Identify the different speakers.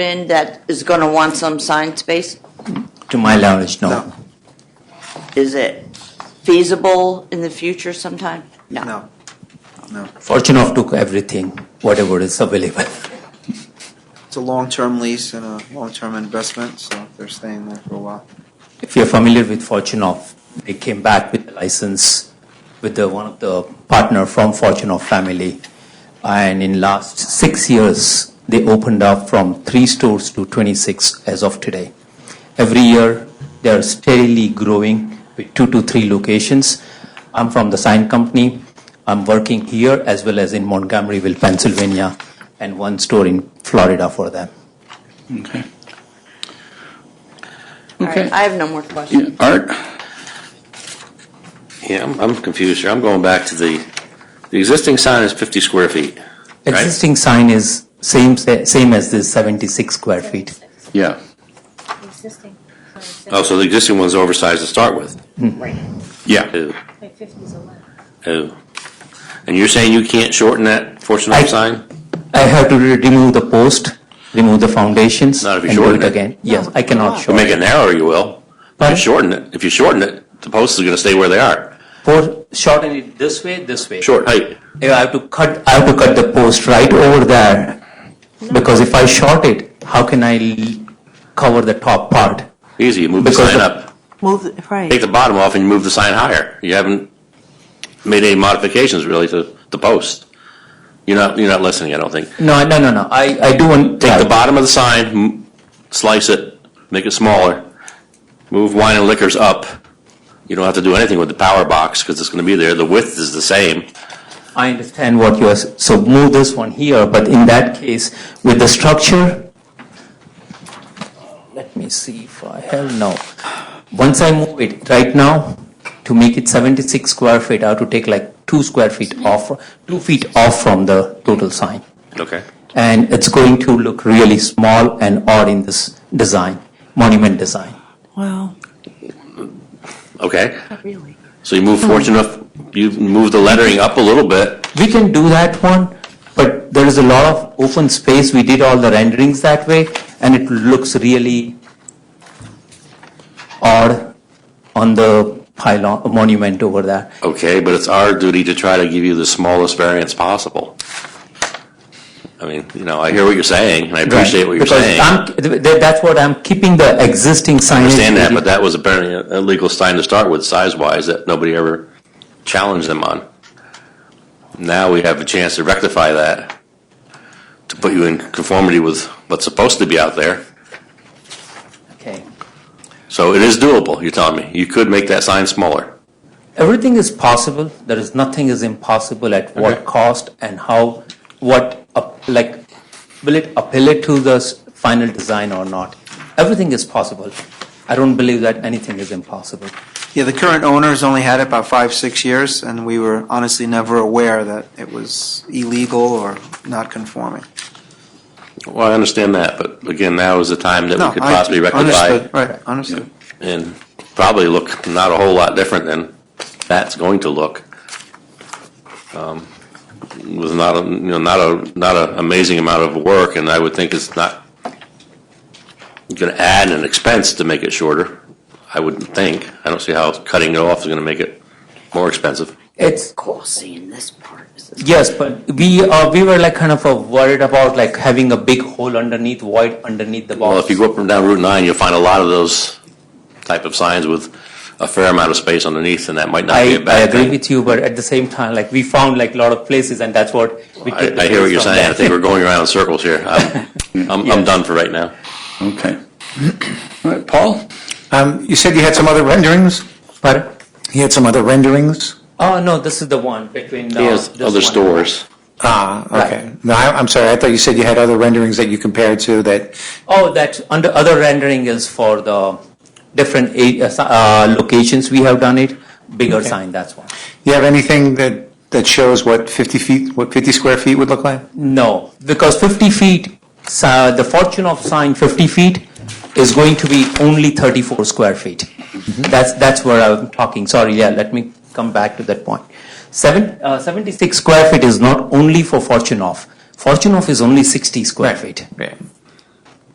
Speaker 1: in that is going to want some sign space?
Speaker 2: To my knowledge, no.
Speaker 3: No.
Speaker 1: Is it feasible in the future sometime?
Speaker 3: No, no.
Speaker 2: Fortune of took everything, whatever is available.
Speaker 3: It's a long-term lease and a long-term investment, so they're staying there for a while.
Speaker 2: If you're familiar with Fortune of, they came back with the license with the, one of the partner from Fortune of family. And in last six years, they opened up from three stores to 26 as of today. Every year, they are steadily growing with two to three locations. I'm from the sign company. I'm working here as well as in Montgomeryville, Pennsylvania, and one store in Florida for them.
Speaker 4: Okay.
Speaker 1: All right,
Speaker 4: Okay.
Speaker 1: I have no more
Speaker 4: Yeah,
Speaker 1: questions.
Speaker 4: Art?
Speaker 5: Yeah, I'm, I'm confused here. I'm going back to the, the existing sign is 50 square feet. Right.
Speaker 2: Existing sign is same, same as this 76 square feet.
Speaker 4: Yeah.
Speaker 6: Existing.
Speaker 5: Oh, so the existing one's oversized to start with.
Speaker 1: Hmm.
Speaker 4: Yeah.
Speaker 5: Oh,
Speaker 6: Like 50 is allowed.
Speaker 5: oh. And you're saying you can't shorten that Fortune
Speaker 2: I-
Speaker 5: Home sign?
Speaker 2: I have to re- remove the post, remove the foundations.
Speaker 5: Not if you
Speaker 2: and do
Speaker 5: shorten it.
Speaker 2: again. Yes, I cannot
Speaker 5: If you
Speaker 2: shorten.
Speaker 5: make it narrower, you will. If you
Speaker 2: Pardon?
Speaker 5: shorten it, if you shorten it, the posts are going to stay where they are.
Speaker 2: For- Shorten it this way, this way.
Speaker 5: Short height.
Speaker 2: If I have to cut, I have to cut the post right over there. Because if I short it, how can I l- cover the top part?
Speaker 5: Easy, you move the
Speaker 2: Because
Speaker 5: sign
Speaker 2: the-
Speaker 5: up.
Speaker 1: Move, right.
Speaker 5: Take the bottom off and you move the sign higher. You haven't made any modifications really to the post. You're not, you're not listening, I don't think.
Speaker 2: No, no, no, no. I, I do want.
Speaker 5: Take the bottom of the sign, m- slice it, make it smaller, move wine and liquors up. You don't have to do anything with the power box because it's going to be there. The width is the same.
Speaker 2: I understand what you are, s- so move this one here, but in that case, with the structure, let me see if I have, no. Once I move it, right now, to make it 76 square feet, I have to take like two square feet off, two feet off from the total sign.
Speaker 5: Okay.
Speaker 2: And it's going to look really small and odd in this design, monument design.
Speaker 1: Well,
Speaker 5: Okay.
Speaker 1: not really.
Speaker 5: So you move fortunate enough, you move the lettering up a little bit.
Speaker 2: We can do that one, but there is a lot of open space. We did all the renderings that way, and it looks really odd on the pylon, monument over there.
Speaker 5: Okay, but it's our duty to try to give you the smallest variance possible. I mean, you know, I hear what you're saying and I appreciate what you're
Speaker 2: Because
Speaker 5: saying. I
Speaker 2: I'm- th- th- that's what I'm keeping the existing signage.
Speaker 5: understand that, but that was apparently a a legal sign to start with, size wise, that nobody ever challenged them on. Now we have a chance to rectify that, to put you in conformity with what's supposed to be out there.
Speaker 2: Okay.
Speaker 5: So it is doable, you're telling me. You could make that sign smaller.
Speaker 2: Everything is possible. There is nothing is impossible at
Speaker 5: Okay.
Speaker 2: what cost and how, what, up- like, will it appeal to the s- final design or not? Everything is possible. I don't believe that anything is impossible.
Speaker 3: Yeah, the current owner's only had it about five, six years, and we were honestly never aware that it was illegal or not conforming.
Speaker 5: Well, I understand that, but again, now is the time that
Speaker 3: No,
Speaker 5: we could
Speaker 3: I-
Speaker 5: possibly rectify
Speaker 3: Understood, right, understood.
Speaker 5: and probably look not a whole lot different than that's going to look. Um, With not, a you know, not a, not an amazing amount of work, and I would think it's not going to add an expense to make it shorter, I wouldn't think. I don't see how cutting it off is going to make it more expensive.
Speaker 2: It's,
Speaker 1: Cool seeing this part. This is-
Speaker 2: yes, but we, uh, we were like kind of uh, worried about like having a big hole underneath, void underneath the box.
Speaker 5: Well, if you go up and down Route 9, you'll find a lot of those type of signs with a fair amount of space underneath, and that might not be a
Speaker 2: I, I
Speaker 5: bad
Speaker 2: agree
Speaker 5: thing.
Speaker 2: with you, but at the same time, like, we found like a lot of places and that's what we
Speaker 5: I
Speaker 2: took.
Speaker 5: I hear what you're
Speaker 2: from
Speaker 5: saying. I
Speaker 2: that.
Speaker 5: think we're going around in circles here. I'm, I'm- I'm done for right now.
Speaker 4: Okay. All right, Paul?
Speaker 7: Um, You said you had some other renderings?
Speaker 2: Pardon?
Speaker 7: You had some other renderings?
Speaker 2: Oh, no, this is the one between. uh,
Speaker 5: There's
Speaker 2: this
Speaker 5: other
Speaker 2: one.
Speaker 5: stores.
Speaker 7: Ah, okay.
Speaker 2: Right.
Speaker 7: No, I- I'm sorry, I thought you said you had other renderings that you compared to that,
Speaker 2: Oh, that under other rendering is for the different a- uh, s- uh, locations we have done it, bigger sign, that's one.
Speaker 7: you have anything that, that shows what 50 feet, what 50 square feet would look like?
Speaker 2: No, because 50 feet, s- uh, the fortune of sign 50 feet is going to be only 34 square feet. That's, that's where I'm talking, sorry, yeah, let me come back to that point. Seven, uh, 76 square feet is not only for fortune of, fortune of is only 60 square feet.
Speaker 7: Right.